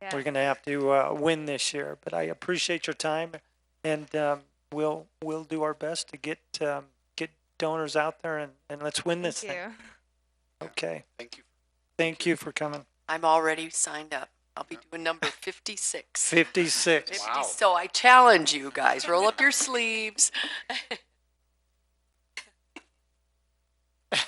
We're Yeah. going to have to uh, win this year. But I appreciate your time, and um, we'll we'll do our best to get um, get donors out there and, and let's win this Thank thing. you. Okay. Thank you. Thank you for coming. I'm already signed up. I'll be doing number fifty-six. 56. Wow. So I challenge you guys, roll up your sleeves.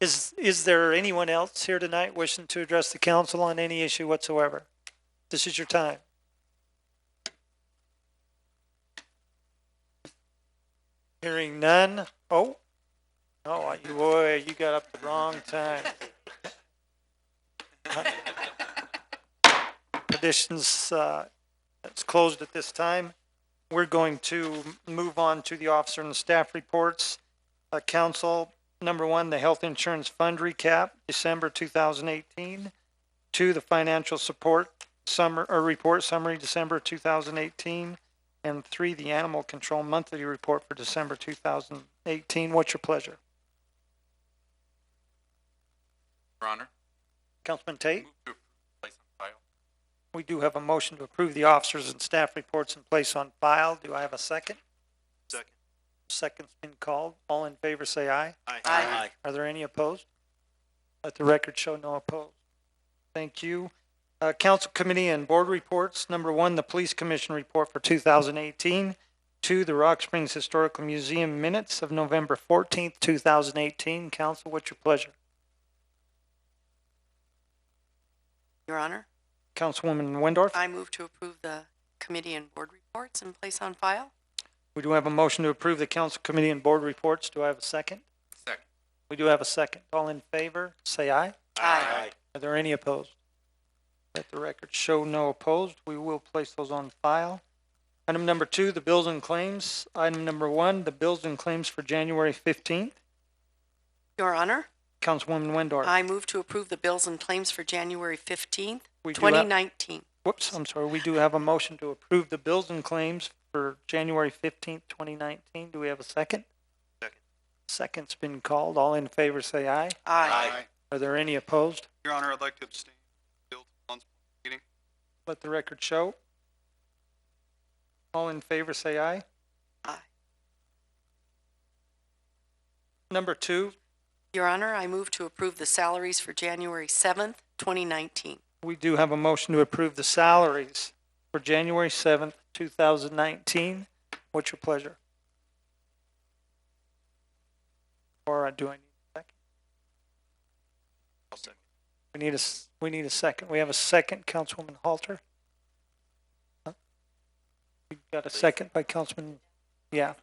Is is there anyone else here tonight wishing to address the council on any issue whatsoever? This is your time. Hearing none. Oh, oh, you boy, you got up the wrong time. Petitions, uh, it's closed at this time. We're going to move on to the officer and staff reports. Uh, council, Number one, the health insurance fund recap, December two thousand eighteen. Two, the financial support summer, or report summary, December two thousand eighteen. And three, the animal control monthly report for December two thousand eighteen. What's your pleasure? Your Honor, Councilman Tate, move to approve place on file. we do have a motion to approve the officers and staff reports in place on file. Do I have a second? Second. Second's been called. All in favor, say aye. Aye. Are there any opposed? Let the record show no opposed. Thank you. Uh, council committee and board reports. Number one, the police commission report for two thousand eighteen. Two, the Rock Springs Historical Museum minutes of November fourteenth, two thousand eighteen. Council, what's your pleasure? Your Honor, Councilwoman Wendorf, I move to approve the committee and board reports and place on file. we do have a motion to approve the council committee and board reports. Do I have a second? Second. We do have a second. All in favor, say aye. Aye. Are there any opposed? Let the record show no opposed. We will place those on file. Item number two, the bills and claims. Item number one, the bills and claims for January fifteenth. Your Honor, Councilwoman Windor. I move to approve the bills and claims for January fifteenth, We do have- twenty nineteen. Whoops, I'm sorry. We do have a motion to approve the bills and claims for January fifteenth, twenty nineteen. Do we have a second? Second. Second's been called. All in favor, say aye. Aye. Are there any opposed? Your Honor, I'd like to abstain. Bill Talon's meeting. Let the record show. All in favor, say aye. Aye. Number two, Your Honor, I move to approve the salaries for January seventh, twenty nineteen. we do have a motion to approve the salaries for January seventh, two thousand nineteen. What's your pleasure? Or uh, do I need a second? I'll second. We need a, s- we need a second. We have a second, Councilwoman Halter. Huh? We got a second by Councilman, yeah.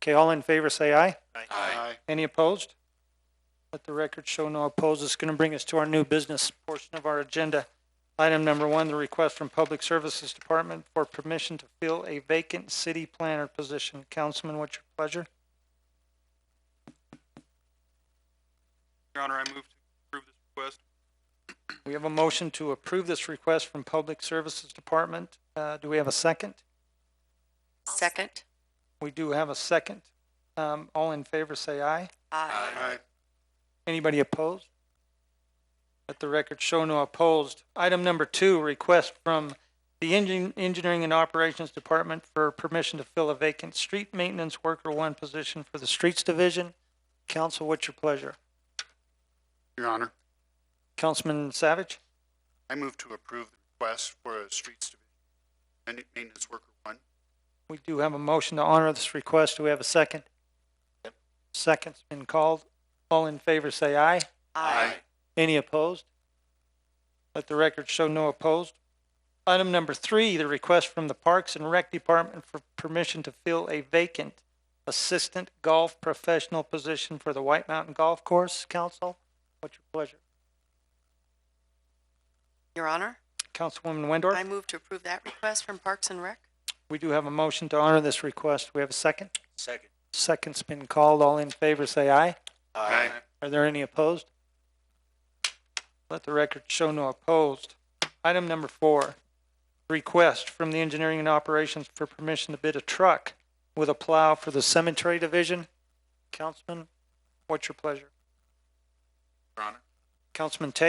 Okay, all in favor, say aye. Aye. Any opposed? Let the record show no opposed. It's going to bring us to our new business portion of our agenda. Item number one, the request from Public Services Department for permission to fill a vacant city planner position. Councilman, what's your pleasure? Your Honor, I move to approve this request. We have a motion to approve this request from Public Services Department. Uh, do we have a second? Second. We do have a second. Um, all in favor, say aye. Aye. Anybody opposed? Let the record show no opposed. Item number two, request from the Engin- Engineering and Operations Department for permission to fill a vacant street maintenance worker one position for the Streets Division. Council, what's your pleasure? Your Honor, Councilman Savage, I move to approve the request for a streets division and maintenance worker one. we do have a motion to honor this request. Do we have a second? Second's been called. All in favor, say aye. Any opposed? Let the record show no opposed. Item number three, the request from the Parks and Rec Department for permission to fill a vacant assistant golf professional position for the White Mountain Golf Course. Council, what's your pleasure? Your Honor, Councilwoman I Wendorf, move to approve that request from Parks and Rec. we do have a motion to honor this request. We have a second. Second. Second's been called. All in favor, say aye. Aye. Are there any opposed? Let the record show no opposed. Item number four, request from the Engineering and Operations for permission to bid a truck with a plow for the Cemetery Division. Councilman, what's your pleasure? Your Honor, Councilman Tate?